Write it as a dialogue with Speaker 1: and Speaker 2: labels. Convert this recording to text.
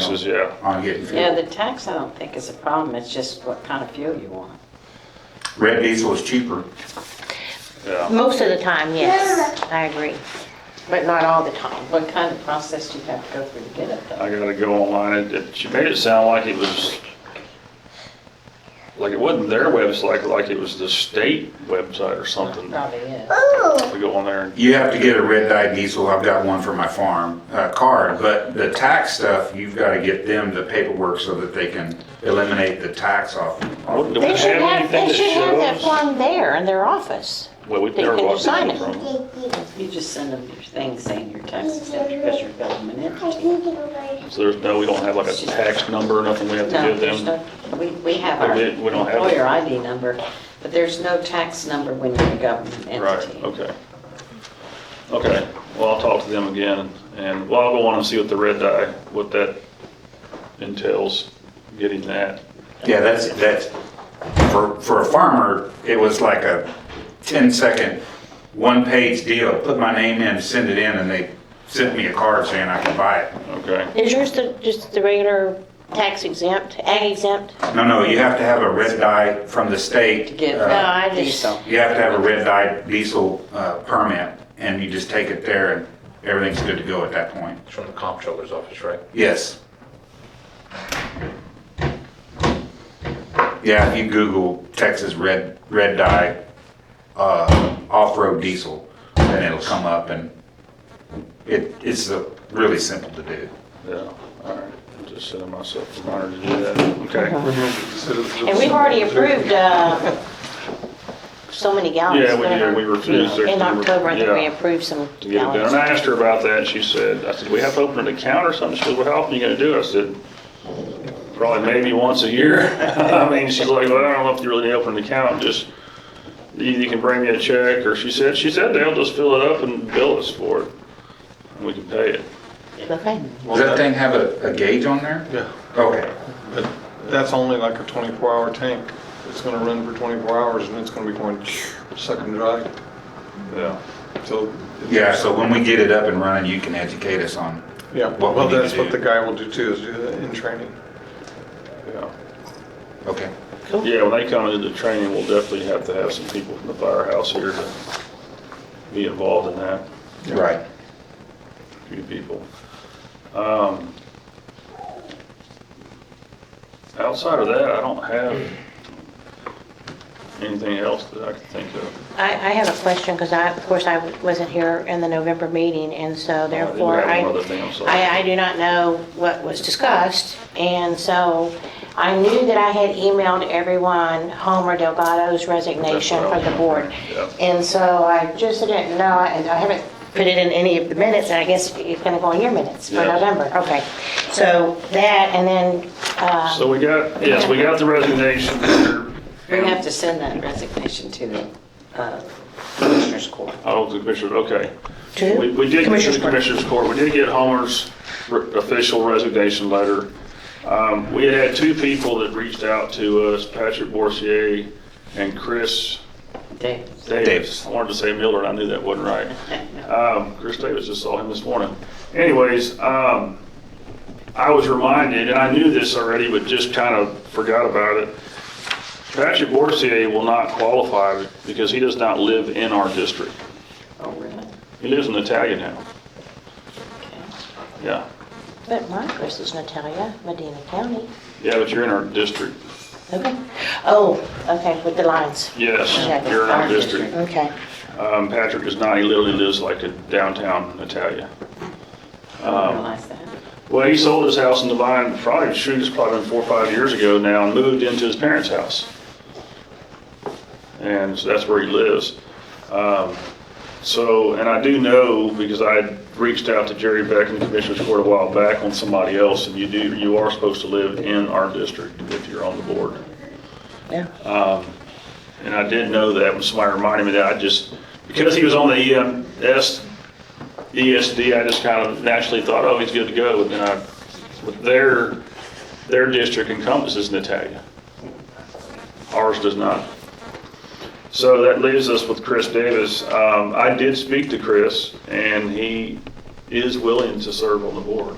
Speaker 1: Says, yeah.
Speaker 2: on getting
Speaker 3: Yeah,
Speaker 2: fuel.
Speaker 3: the tax I don't think is a problem, it's just what kind of fuel you want.
Speaker 2: Red diesel is cheaper.
Speaker 1: Yeah.
Speaker 4: Most of the time, yes, I agree, but not all the time.
Speaker 3: What kind of process do you have to go through to get it though?
Speaker 1: I gotta go online. It- It, she made it sound like it was, like it wasn't their website, like it was the state website or something.
Speaker 3: Probably is.
Speaker 4: Oh.
Speaker 1: We go on there and,
Speaker 2: You have to get a red dye diesel, I've got one for my farm, uh, card, but the tax stuff, you've gotta get them the paperwork so that they can eliminate the tax off. off
Speaker 1: What
Speaker 2: the-
Speaker 1: do we
Speaker 4: They should have,
Speaker 1: anything
Speaker 4: they
Speaker 1: that
Speaker 4: should have that
Speaker 1: shows?
Speaker 4: form there in their office.
Speaker 1: Well, we
Speaker 4: They
Speaker 1: never
Speaker 4: can
Speaker 1: walked
Speaker 4: sign
Speaker 1: in
Speaker 4: it.
Speaker 1: from.
Speaker 3: You just send them your thing saying your tax is after because you're government entity.
Speaker 1: So there's no, we don't have like a tax number or nothing we have to
Speaker 3: No,
Speaker 1: give
Speaker 3: there's
Speaker 1: them.
Speaker 3: no, we, we have
Speaker 1: Oh,
Speaker 3: our
Speaker 1: we- we don't have it?
Speaker 3: employer ID number, but there's no tax number when you're a government
Speaker 1: Right,
Speaker 3: entity.
Speaker 1: okay. Okay, well, I'll talk to them again and, well, I'll go on and see what the red dye, what that entails, getting that.
Speaker 2: Yeah, that's, that's, for, for a farmer, it was like a 10-second, one-page deal. Put my name in, send it in, and they sent me a card saying I can buy it.
Speaker 1: Okay,
Speaker 4: Is yours the, just the regular tax exempt, ag exempt?
Speaker 2: No, no, you have to have a red dye from the state.
Speaker 3: To get
Speaker 2: uh,
Speaker 4: No, I just-
Speaker 3: diesel.
Speaker 2: You have to have a red dye diesel uh, permit, and you just take it there, and everything's good to go at that point.
Speaker 5: It's from the comptroller's office, right?
Speaker 2: Yes. Yeah, if you Google Texas red, red dye, uh, off-road diesel, then it'll come up, and it, it's uh, really simple to do.
Speaker 1: yeah, all right. I'm Just sending myself a reminder to do that. Okay.
Speaker 4: And we've already approved, uh, so many gallons.
Speaker 1: Yeah, we did,
Speaker 4: whatever.
Speaker 1: we refused. to-
Speaker 4: In October, I think we
Speaker 1: Yeah,
Speaker 4: approved some
Speaker 1: To get it done.
Speaker 4: gallons.
Speaker 1: And I asked her about that and she said, I said, we have to open an account or something. She goes, well, how often are you gonna do it? I said, probably maybe once a year. I mean, she's like, well, I don't know if you really need to open an account, just either you can bring me a check or she said, she said they'll just fill it up and bill us for it. And we can pay it.
Speaker 4: Okay.
Speaker 2: Does that thing have a a gauge on there?
Speaker 6: Yeah,
Speaker 2: Okay.
Speaker 6: but that's only like a 24-hour tank. It's going to run for 24 hours and it's going to be going sucking dry
Speaker 1: Yeah.
Speaker 6: till.
Speaker 2: Yeah, so when we get it up and running, you can educate us on,
Speaker 6: Yeah,
Speaker 2: what we
Speaker 6: well,
Speaker 2: need to
Speaker 6: that's what
Speaker 2: do.
Speaker 6: the guy will do too, is do that in training.
Speaker 1: Yeah.
Speaker 2: okay.
Speaker 1: Yeah, when they come into the training, we'll definitely have to have some people from the firehouse here to be involved in that,
Speaker 2: Right.
Speaker 1: a few people. Um, Outside of that, I don't have anything else that I can think of.
Speaker 4: I, I have a question, because I, of course, I wasn't here in the November meeting, and so
Speaker 1: did
Speaker 4: therefore,
Speaker 1: Oh, have
Speaker 4: I,
Speaker 1: one other thing, I'm sorry.
Speaker 4: I, I do not know what was discussed, and so I knew that I had emailed everyone Homer Delgado's resignation
Speaker 1: That's what I
Speaker 4: from the
Speaker 1: was
Speaker 4: board.
Speaker 1: wondering,
Speaker 4: And so I just didn't know, and I haven't put it in any of the minutes, and I guess it's gonna go in your minutes for
Speaker 1: Yeah.
Speaker 4: November, okay. So that, and then, uh,
Speaker 1: So we got, yes, we got the resignation.
Speaker 3: We have to send that resignation to the uh, Commissioners Court.
Speaker 1: Oh, the commissioner, okay.
Speaker 4: to
Speaker 1: We we did, get to
Speaker 4: Commissioner's
Speaker 1: the
Speaker 4: Court.
Speaker 1: Commissioners Court, we did get Homer's re- official resignation letter. Um, We had had two people that reached out to us, Patrick Borsier and Chris
Speaker 3: Dave,
Speaker 1: Davis.
Speaker 2: Davis.
Speaker 1: I wanted to say Miller, and I knew that wasn't right. Um, Chris Davis, just saw him this morning. Anyways, um, I was reminded, and I knew this already, but just kind of forgot about it. Patrick Borsier will not qualify because he does not live in our district.
Speaker 3: oh, really?
Speaker 1: He lives in Italian now, Um,
Speaker 3: Okay.
Speaker 1: yeah.
Speaker 4: But my Chris is Natalia, Medina County.
Speaker 1: Yeah, but you're in our district.
Speaker 4: Okay. Oh, okay, with the lines.
Speaker 1: Yes,
Speaker 4: Yeah,
Speaker 1: you're in our
Speaker 3: our
Speaker 1: district.
Speaker 4: Okay.
Speaker 1: Um, Patrick is not, he literally lives like in downtown Natalia.
Speaker 3: I didn't realize that.
Speaker 1: Well, he sold his house in Divine, probably, shoot, it's probably been four or five years ago now, and moved into his parents' house. And so that's where he lives. Um, So, and I do know, because I had reached out to Jerry Beck in the Commissioners Court a while back on somebody else, and you do, you are supposed to live in our district if you're on the board. Um,
Speaker 4: Yeah.
Speaker 1: And I did know that when somebody reminded me that, I just, because he was on the E EMS, ESD, E I just kind of naturally thought, oh, he's good to go. And then I, but their, their district encompasses Natalia. Ours does not. So that leaves us with Chris Davis. Um, I did speak to Chris and he is willing to serve on the board.